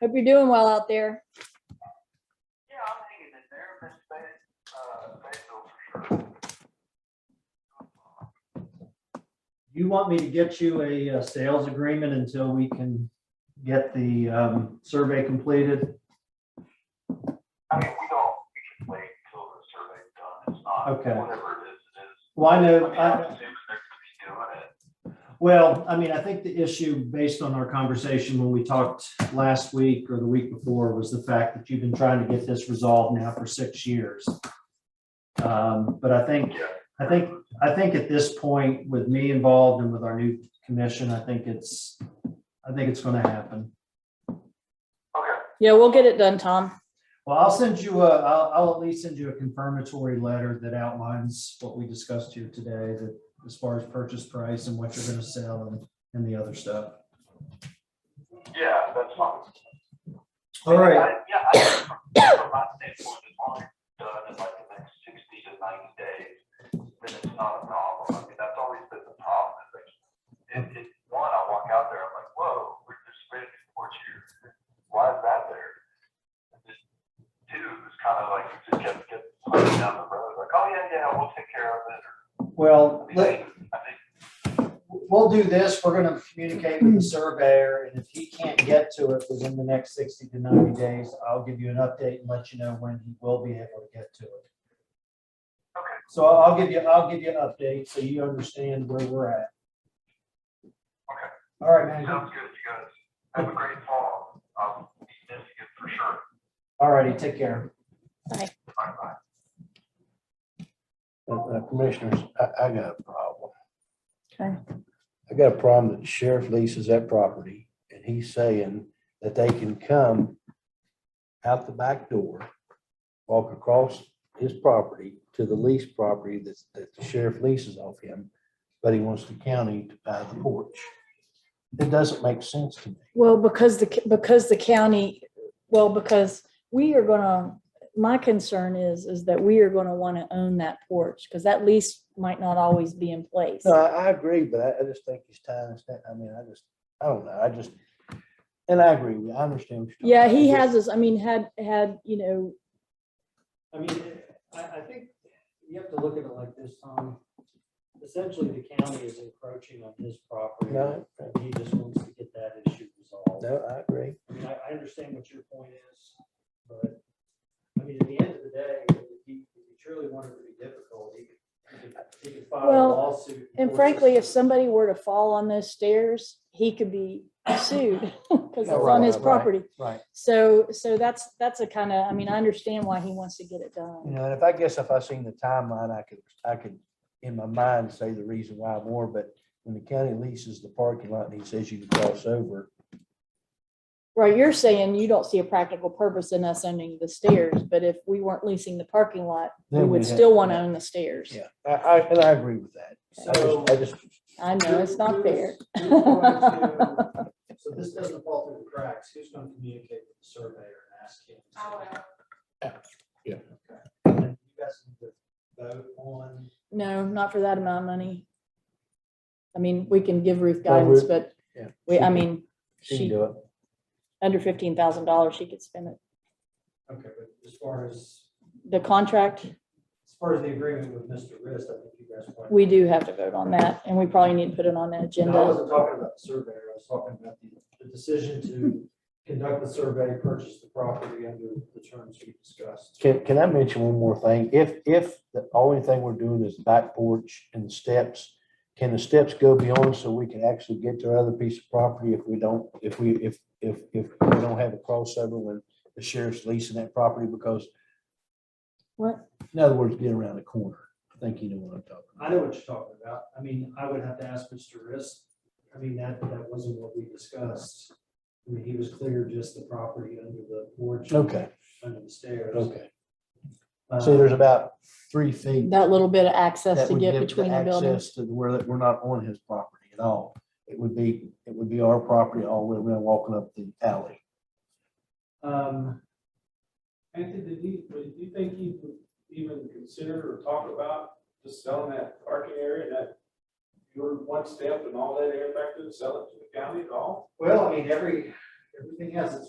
Hope you're doing well out there. Yeah, I'm hanging in there, Miss Betty, uh, Bettyville for sure. You want me to get you a uh, sales agreement until we can get the um, survey completed? I mean, we don't, we can wait until the survey's done, it's not, Okay. whatever it is, it is. Well, I I know, mean, I'm uh, I- assuming they're gonna be doing it. well, I mean, I think the issue based on our conversation when we talked last week or the week before was the fact that you've been trying to get this resolved now for six years. Um, But I think, Yeah. I think, I think at this point, with me involved and with our new commission, I think it's, I think it's going to happen. Okay, Yeah, we'll get it done, Tom. Well, I'll send you a, I'll, I'll at least send you a confirmatory letter that outlines what we discussed here today, that as far as purchase price and what you're gonna sell and, and the other stuff. yeah, that's fine. All right, I- Yeah, I, from my standpoint, as long as it's done in like the next sixty to ninety days, then it's not a problem. I mean, that's always been the problem, is like, if, if, one, I walk out there, I'm like, whoa, we're just ready to support you. Why is that there? And just, two, it's kind of like, you just kept, kept pushing down the road, like, oh, yeah, yeah, we'll take care of it. I well, mean, let, I think, we'll do this. We're gonna communicate with the surveyor and if he can't get to it within the next sixty to ninety days, I'll give you an update and let you know when he will be able to get to it. Okay. So I'll give you, I'll give you an update so you understand where we're at. Okay. All right, man. sounds good, you guys. Have a great fall. I'll be missing it for sure. All righty, take care. Bye bye. Uh, uh, Commissioners, I, I got a problem. Okay. I got a problem that the sheriff leases that property and he's saying that they can come out the back door, walk across his property to the lease property that, that the sheriff leases off him, but he wants the county to buy the porch. It doesn't make sense to me. Well, because the, because the county, well, because we are gonna, my concern is, is that we are gonna wanna own that porch, because that lease might not always be in place. No, I, I agree, but I, I just think he's tying us down. I mean, I just, I don't know, I just, and I agree with you, I understand. what you're Yeah, talking he about. has this, I mean, had, had, you know, I mean, I, I think you have to look at it like this, Tom. Essentially, the county is encroaching on his property. No, And he just wants to get that issue resolved. no, I agree. I mean, I, I understand what your point is, but, I mean, at the end of the day, if he, if he truly wanted to be difficult, he could, he could- he could file a Well, lawsuit. and force frankly, if us to- somebody were to fall on those stairs, he could be sued, because it's Yeah, on right, his right, property. right. So, so that's, that's a kind of, I mean, I understand why he wants to get it You done. know, and if I guess if I seen the timeline, I could, I could, in my mind, say the reason why more, but when the county leases the parking lot and he says you can cross over. Right, you're saying you don't see a practical purpose in us owning the stairs, but if we weren't leasing the parking lot, we then would we'd have- still want to own the stairs. Yeah, I, I, and I agree with that. I So. just, I just, I know, it's not Who's- fair. who's going to- So this doesn't fall through the cracks. Who's going to communicate with the surveyor and ask him? Yeah. And You guys need to vote on, No, not for that amount of money. I mean, we can give Ruth Well, guidance, Ruth- but yeah. we, I she- mean, She can she, do it. under fifteen thousand dollars, she could spend it. okay, but as far as, The contract, as far as the agreement with Mr. Rist, I think you guys. want- we do have to vote on that, and we probably need to put it on the And I agenda. wasn't talking about the surveyor. I was talking about the, the decision to conduct the survey, purchase the property under the terms we discussed. Can, can I mention one more thing? If, if the only thing we're doing is back porch and steps, can the steps go beyond so we can actually get to our other piece of property if we don't, if we, if, if, if we don't have a crossover when the sheriff's leasing that property because What? In other words, get around the corner. I think you know what I'm talking I know what you're talking about. I mean, I would have to ask Mr. Riss. I mean, that, that wasn't what we discussed. I mean, he was clear just the property under the porch. about. Okay, Under the stairs. okay. Uh, So there's about three feet. That little bit of that access to would get give the between the buildings. access To where that we're not on his property at all. It would be, it would be our property all the way around walking up the alley. Um, Anthony, did he, would you think he would even consider or talk about just selling that parking area, that your one step and all that area back to the sell it to the county at all? well, I mean, every, everything has its